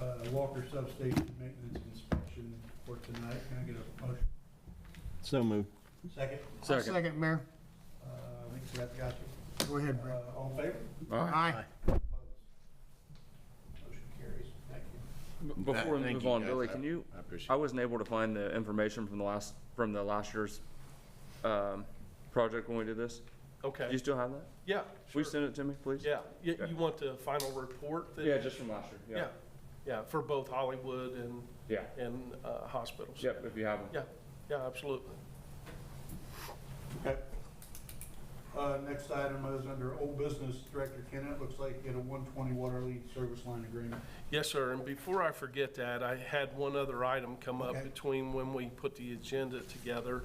uh, Walker Substation Maintenance Inspection for tonight. Can I get a motion? So moved. Second? I'll Second, Mayor. Uh, I think Seth got you. Go ahead, Brett. Uh, All in favor? Aye. Opposed? Motion carries. Thank you. B- Before we thank move you, on, guys. Billy, can you, I I appreciate it. wasn't able to find the information from the last, from the last year's, um, project when we did this. Do you Okay, still have that? yeah, Will sure. you send it to me, please? Yeah, you, you want the final report? that- Yeah, just from last year, Yeah, yeah, for both Hollywood and, Yeah. and uh, hospitals. Yep, if you have them. Yeah, yeah, absolutely. Okay. Uh, Next item is under old business, Director Kennett, looks like you had a 120 water lead service line agreement. Yes, sir, and before I forget that, I had one other item come up Okay. between when we put the agenda together.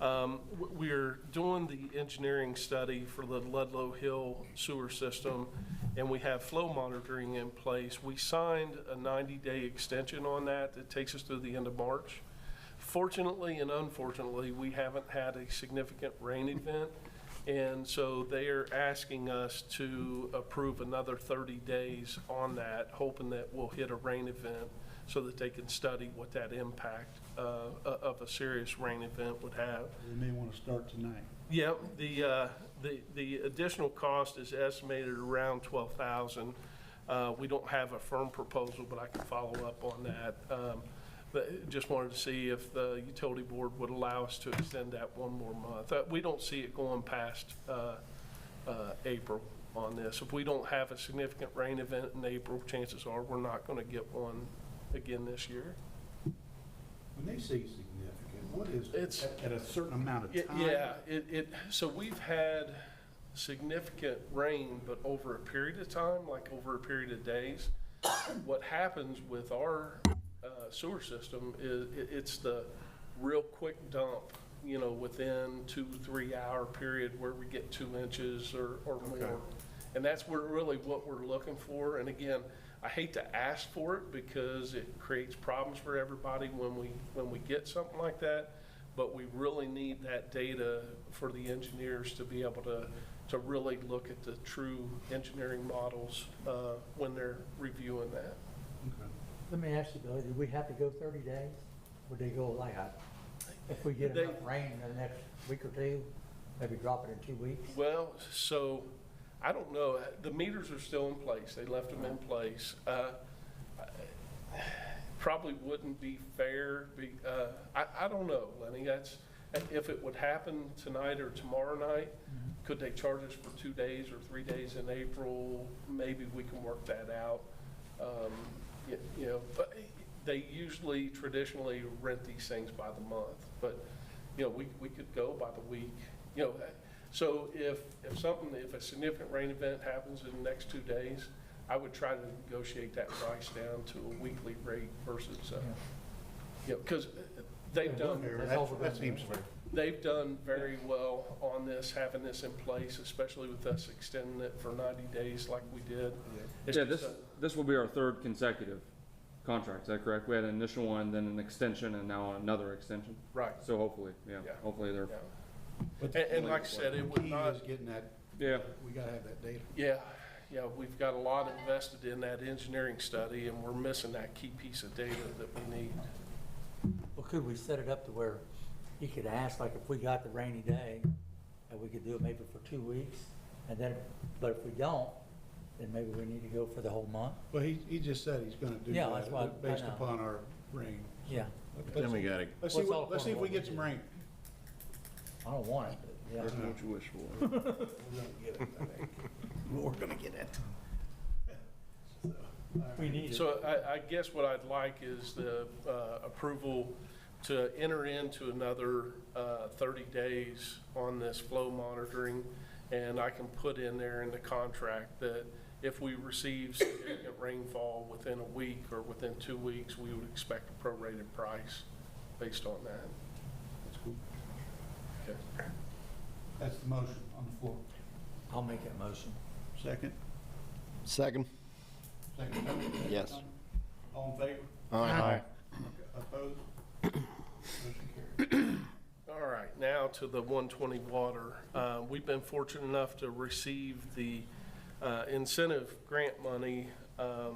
Um, w- We're doing the engineering study for the Ludlow Hill Sewer System, and we have flow monitoring in place. We signed a 90-day extension on that that takes us through the end of March. Fortunately and unfortunately, we haven't had a significant rain event, and so they are asking us to approve another 30 days on that, hoping that we'll hit a rain event so that they can study what that impact uh, o- of a serious rain event would have. You may want to start tonight. Yep, the, uh, the, the additional cost is estimated around twelve thousand. Uh, we don't have a firm proposal, but I can follow up on that. Um, but just wanted to see if the utility board would allow us to extend that one more month. Uh, we don't see it going past, uh, uh, April on this. If we don't have a significant rain event in April, chances are we're not gonna get one again this year. When they say significant, what is, It's- at- at a certain amount Y- of time? Yeah, it, it, so we've had significant rain, but over a period of time, like over a period of days. What happens with our uh, sewer system is, it, it's the real quick dump, you know, within two, three hour period where we get two inches or, or more. And that's where, really what we're looking for, and again, I hate to ask for it because it creates problems for everybody when we, when we get something like that but we really need that data for the engineers to be able to, to really look at the true engineering models uh, when they're reviewing that. Okay. Let me ask you, Billy, do we have to go thirty days? Would they go like, uh, if we get They- enough rain in the next week or two, maybe drop it in two weeks? Well, so, I don't know, the meters are still in place, they left them in place. Uh, I- Probably wouldn't be fair, be, uh, I, I don't know, Lenny, that's, if it would happen tonight or tomorrow night, could they charge us for two days or three days in April? Maybe we can work that out. Um, y- You know, but they usually traditionally rent these things by the month, but, you know, we, we could go by the week, you know. So if, if something, if a significant rain event happens in the next two days, I would try to negotiate that price down to a weekly rate versus, uh, you know, because they've done. Fair. That's That- all we're That gonna seems do. fair. They've done very well on this, having this in place, especially with us extending it for 90 days like we did. It's Yeah, just this, a- this will be our third consecutive contract, is that correct? We had an initial one, then an extension, and now another extension. Right, So hopefully, yeah, Yeah. hopefully they're, yeah. And, and like I said, it would Key not, is getting that, yeah. we got to have that data. yeah, yeah, we've got a lot invested in that engineering study, and we're missing that key piece of data that we need. Well, could we set it up to where he could ask, like, if we got the rainy day, and we could do it maybe for two weeks? And then, but if we don't, then maybe we need to go for the whole month? Well, he, he just said he's going to do Yeah, that's why- that based I know. upon our rain. Yeah, Let's- Then we gotta, Let's see, Well, it's all what- let's see if we upon get what some we rain. I don't want it, but, yeah. what you wish for. We're going to get it, I think. We're going to get it. We need it. So I, I guess what I'd like is the uh, approval to enter into another uh, 30 days on this flow monitoring. And I can put in there in the contract that if we receive significant rainfall within a week or within two weeks, we would expect a prorated price based on that. That's cool. Okay. That's the motion on the floor. I'll make that motion. Second? Second. Second. Tony? Yes. All in favor? Aye. Opposed? Motion carries. All right, now to the 120 water. Uh, We've been fortunate enough to receive the uh, incentive grant money um,